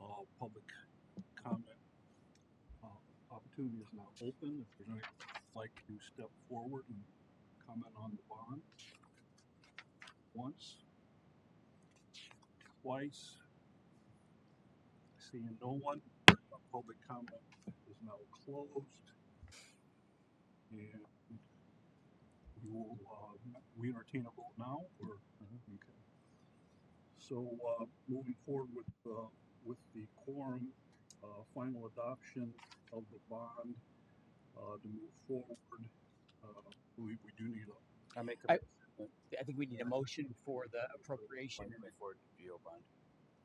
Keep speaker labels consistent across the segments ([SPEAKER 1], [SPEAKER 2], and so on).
[SPEAKER 1] uh, public comment uh, opportunity is now open. If you'd like- like to step forward and comment on the bond once, twice, seeing no one, uh, public comment is now closed. And we will, uh, we entertain a vote now or? Okay. So, uh, moving forward with, uh, with the quorum, uh, final adoption of the bond, uh, to move forward. Uh, we, we do need a,
[SPEAKER 2] I make
[SPEAKER 3] I-
[SPEAKER 2] a
[SPEAKER 3] I think we need a motion for the appropriation.
[SPEAKER 2] motion for GO bond.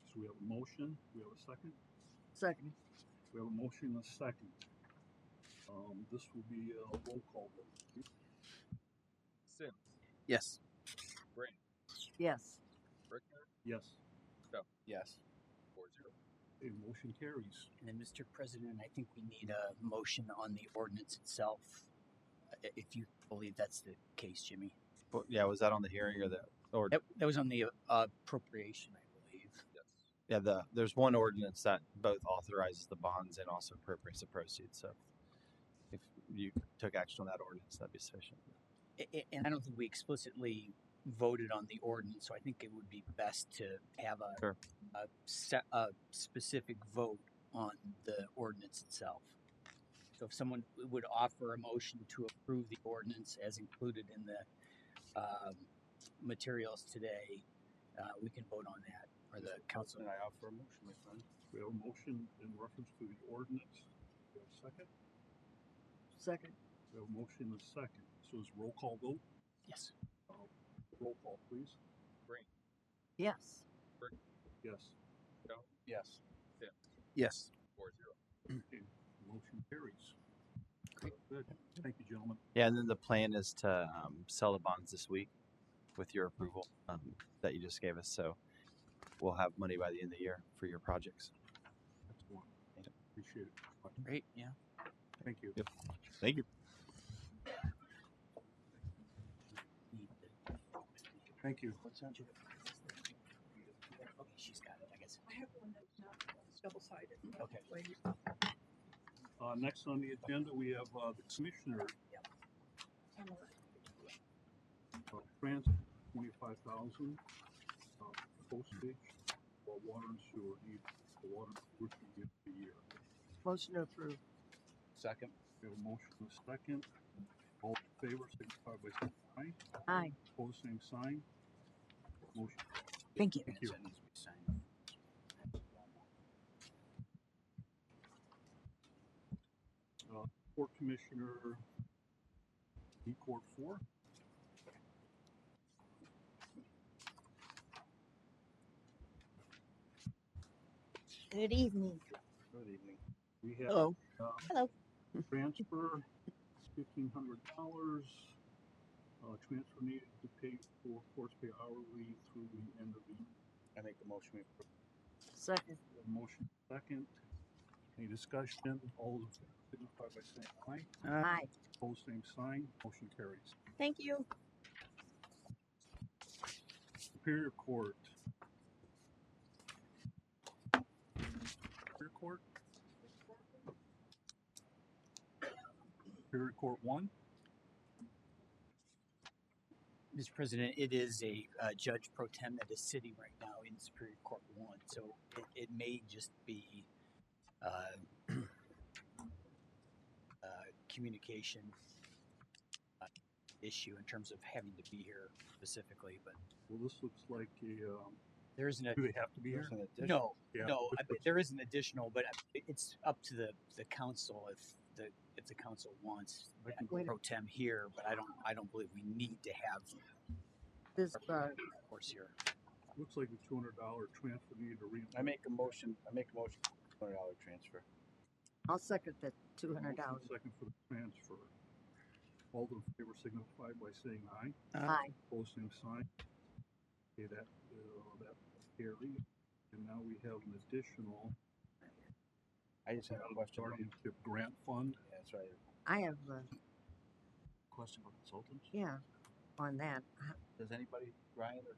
[SPEAKER 1] so we have a motion, we have a second,
[SPEAKER 3] Second.
[SPEAKER 1] we have a motion and a second. Um, this will be a roll call vote.
[SPEAKER 4] Sims,
[SPEAKER 2] Yes.
[SPEAKER 4] Brand,
[SPEAKER 3] Yes.
[SPEAKER 4] Brickner,
[SPEAKER 1] Yes,
[SPEAKER 2] Yes.
[SPEAKER 4] four zero.
[SPEAKER 1] a motion carries.
[SPEAKER 3] And then, Mr. President, I think we need a motion on the ordinance itself, i- if you believe that's the case, Jimmy.
[SPEAKER 2] But yeah, was that on the hearing or the or
[SPEAKER 3] That, that was on the uh, appropriation, I believe.
[SPEAKER 4] Yes.
[SPEAKER 2] yeah the there's one ordinance that both authorizes the bonds and also appropriates the proceeds. So if you took action on that ordinance, that'd be sufficient.
[SPEAKER 3] I- I- And I don't think we explicitly voted on the ordinance, so I think it would be best to have a,
[SPEAKER 2] Sure.
[SPEAKER 3] a, se- a specific vote on the ordinance itself. So if someone would offer a motion to approve the ordinance as included in the um, materials today, uh, we can vote on that, or the council.
[SPEAKER 2] I offer a motion, my friend.
[SPEAKER 1] We have a motion in reference to the ordinance. We have a second?
[SPEAKER 3] Second.
[SPEAKER 1] We have a motion and a second. So it's roll call vote.
[SPEAKER 3] Yes.
[SPEAKER 1] Roll call, please.
[SPEAKER 3] Yes.
[SPEAKER 1] Yes,
[SPEAKER 2] Yes.
[SPEAKER 4] Yeah.
[SPEAKER 2] Yes.
[SPEAKER 4] Four zero.
[SPEAKER 1] motion carries.
[SPEAKER 3] Great.
[SPEAKER 1] Good. Thank you, gentlemen.
[SPEAKER 2] Yeah, and then the plan is to um, sell the bonds this week with your approval um, that you just gave us. So we'll have money by the end of the year for your projects.
[SPEAKER 1] That's one. Appreciate it.
[SPEAKER 3] Great, yeah.
[SPEAKER 1] Thank you.
[SPEAKER 2] Yep. Thank you.
[SPEAKER 1] Thank you.
[SPEAKER 3] Okay, she's got it, I guess.
[SPEAKER 5] I have one that's not double sided.
[SPEAKER 3] Okay.
[SPEAKER 1] Uh, next on the agenda, we have, uh, the commissioner, uh, transit, twenty-five thousand, uh, postage for water and sewer, need for water and sewer to get the year.
[SPEAKER 3] Motion to approve. Second.
[SPEAKER 1] We have a motion and a second. All in favor, signify by saying aye.
[SPEAKER 6] Aye.
[SPEAKER 1] Pose same sign. Motion
[SPEAKER 6] Thank you.
[SPEAKER 1] you.
[SPEAKER 3] That needs to be signed.
[SPEAKER 1] Court Commissioner, E Court Four.
[SPEAKER 6] Good evening.
[SPEAKER 1] Good evening. We have,
[SPEAKER 3] Hello.
[SPEAKER 1] uh,
[SPEAKER 6] Hello.
[SPEAKER 1] transfer, fifteen hundred dollars. Uh, transfer needed to pay for course pay hourly through the end of the year.
[SPEAKER 2] I make the motion. We approve.
[SPEAKER 6] Second.
[SPEAKER 1] Motion second. Any discussion? All those in favor signify by saying aye.
[SPEAKER 3] Uh,
[SPEAKER 6] Hi.
[SPEAKER 1] Pose same sign. Motion carries.
[SPEAKER 6] Thank you.
[SPEAKER 1] Superior Court. Superior Court? Superior Court One?
[SPEAKER 3] Mr. President, it is a uh, judge pro tem that is sitting right now in Superior Court One, so it, it may just be uh, uh, communication uh, issue in terms of having to be here specifically, but
[SPEAKER 1] Well, this looks like a, um,
[SPEAKER 3] there isn't a
[SPEAKER 1] do they have to be here?
[SPEAKER 3] no,
[SPEAKER 1] Yeah.
[SPEAKER 3] no. I, but there is an additional, but I- it's up to the the council if the if the council wants
[SPEAKER 1] I can-
[SPEAKER 6] Wait a-
[SPEAKER 3] pro tem here, but I don't I don't believe we need to have
[SPEAKER 6] This uh,
[SPEAKER 3] of course here.
[SPEAKER 1] Looks like a two hundred dollar transfer needed to re.
[SPEAKER 2] I make a motion. I make a motion. Two hundred dollar transfer.
[SPEAKER 6] I'll second the two hundred dollars.
[SPEAKER 1] Second for the transfer. All those in favor signify by saying aye.
[SPEAKER 6] Hi.
[SPEAKER 1] Pose same sign. Okay, that, uh, that carries. And now we have an additional
[SPEAKER 2] I just
[SPEAKER 1] guardianship grant fund.
[SPEAKER 2] That's right.
[SPEAKER 6] I have uh,
[SPEAKER 2] Question for consultants.
[SPEAKER 6] yeah on that.
[SPEAKER 2] Does anybody, Ryan or